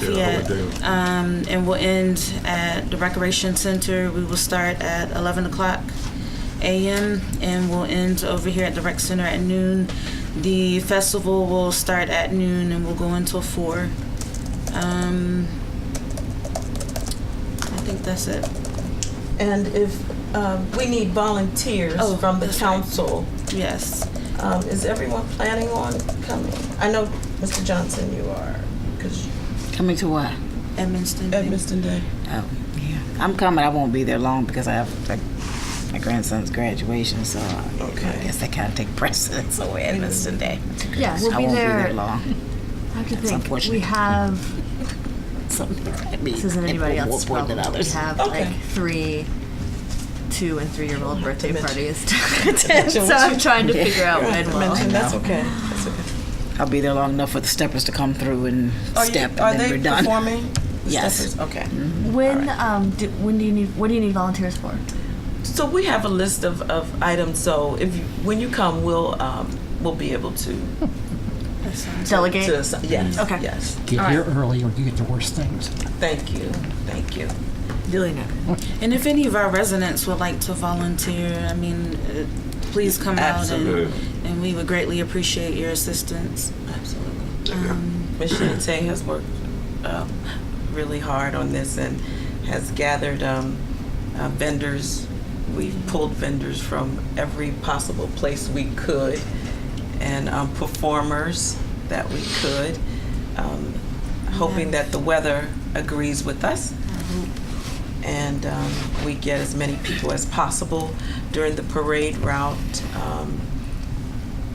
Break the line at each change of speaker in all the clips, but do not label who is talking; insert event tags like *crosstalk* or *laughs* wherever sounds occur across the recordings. Lafayette.
Yeah, Howard Dale.
Um, and we'll end at the Recreation Center. We will start at 11 o'clock a.m. and we'll end over here at the Rec Center at noon. The festival will start at noon and we'll go until 4. Um, I think that's it.
And if, um, we need volunteers
Oh,
from the
that's right.
council.
Yes.
Um, Is everyone planning on coming? I know, Mr. Johnson, you are, because
Coming to what?
Edmiston.
Edmiston Day.
Oh, yeah. I'm coming. I won't be there long because I have like my grandson's graduation, so I-
Okay.
I guess that kind of take precedence *laughs* over Edmiston Day.
Yeah, we'll
I
be
won't be
there.
there long. *laughs*
I have
That's
to think. We
unfortunate.
have.
Some people might be
This isn't anybody
more
else's
bored
problem.
than
We
others.
have
Okay.
like three, two and three year old birthday
mention-
parties
*laughs*
to attend.
mention
So
what you-
I'm trying to figure out
You
when
have to
will.
mention, that's okay, that's okay.
I'll be there long enough for the steppers to come through and
Are you-
step, and
Are
then
they
we're done. *laughs*
performing? The
Yes.
Steppers? Okay.
When um do, when do you need what do you need volunteers for?
So we have a list of, of items, so if, you when you come, we'll, um, we'll be able to.
Delegate.
to assi- Yes,
Okay.
yes.
Get here early or you get the worst things.
Thank you, thank you.
Duly noted.
And if any of our residents would like to volunteer, I mean, uh, please come out
Absolutely.
and, and we would greatly appreciate your assistance. Absolutely.
Ms. Shinite has worked um, really hard on this and has gathered um, uh, vendors. We've pulled vendors from every possible place we could and um, performers that we could, um, hoping that the weather agrees with us and um, we get as many people as possible during the parade route. Um,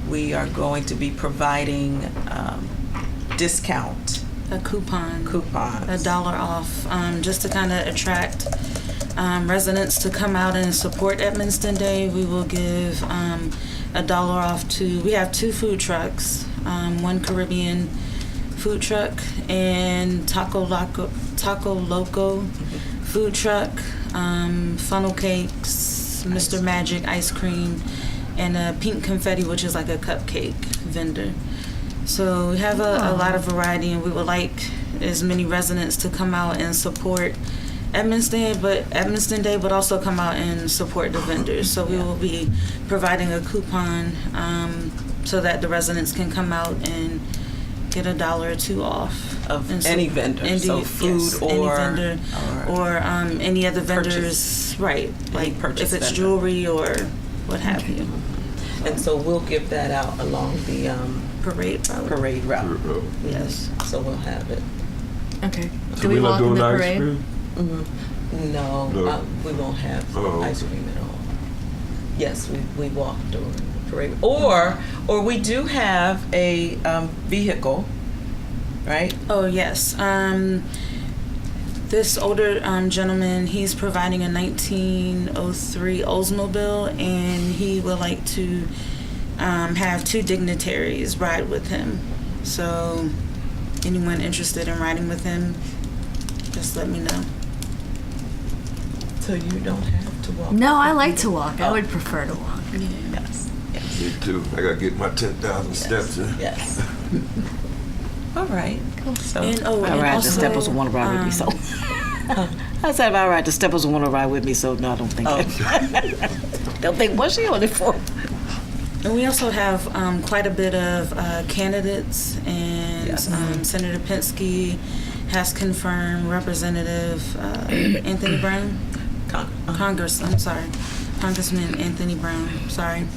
we are going to be providing um, discount
A coupon. a
coupons.
dollar off, um, just to kind of attract um, residents to come out and support Edmiston Day. We will give um, a dollar off to. We have two food trucks, um, one Caribbean food truck and Taco Loco, Taco Loco food truck, um, funnel cakes, Mr. Magic ice cream, and a pink confetti, which is like a cupcake vendor. So we have
Oh.
a, a lot of variety, and we would like as many residents to come out and support Edmiston Day, but Edmiston Day, but also come out and support the vendors. So we will be providing a coupon um, so that the residents can come out and get a dollar or two off
Of
And so-
any vendor,
any-
so
yes,
food
any
or-
vendor or, um, any other vendors,
Purchase.
right? Like
purchase
if it's
vendor.
jewelry or what have you,
And so we'll give that out along the um,
parade. probably.
parade route.
Uh,
Yes.
So we'll have it.
Okay.
So
Do we,
we're not
walk in
doing
the
ice
parade?
cream?
No,
No.
uh, we won't have
Oh,
ice
okay.
cream at all. Yes, we, we walk during the parade. Or, or we do have a um, vehicle, right?
Oh, yes. Um, this older um, gentleman, he's providing a 1903 Oldsmobile, and he would like to um, have two dignitaries ride with him. So, anyone interested in riding with him, just let me know.
So you don't have to walk.
No, I like to walk.
Oh.
I would prefer to walk.
Yes,
Me too. I gotta get my ten thousand steps in. *laughs*
yes. All right. So,
And oh,
I
and
ride
also,
the steppers and want to ride with me,
um,
so. *laughs* I said if I ride the steppers and want to ride with me, so no, I don't think. don't think what's she on it for?
And we also have um, quite a bit of uh, candidates, and
Yes.
um, Senator Penske has confirmed Representative uh, *coughs* Anthony Brown,
Con- uh,
Congress, I'm sorry, Congressman Anthony Brown, sorry.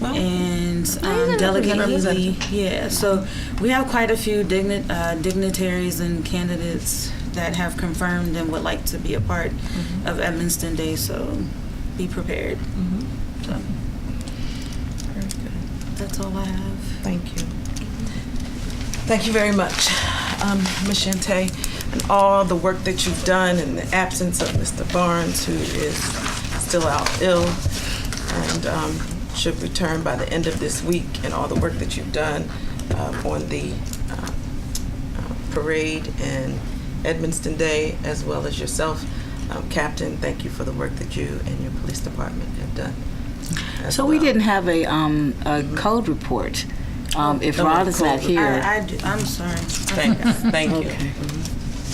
Well,
And um,
a
Delegate Healy,
representative.
yeah, so we have quite a few digni- uh, dignitaries and candidates that have confirmed and would like to be a part of Edmiston Day, so be prepared. So
very good.
That's all I have.
Thank you. Thank you very much, um, Ms. Shante, and all the work that you've done in the absence of Mr. Barnes, who is still out ill and um, should return by the end of this week, and all the work that you've done um, on the uh, uh, parade and Edmiston Day, as well as yourself, um, Captain. Thank you for the work that you and your police department have done. as
So we
well.
didn't have a um, a code report. Um, if
Oh,
Rod is
code
not
report.
here,
I, I do, I'm sorry.
Thank, thank you.
Okay.
Mhm.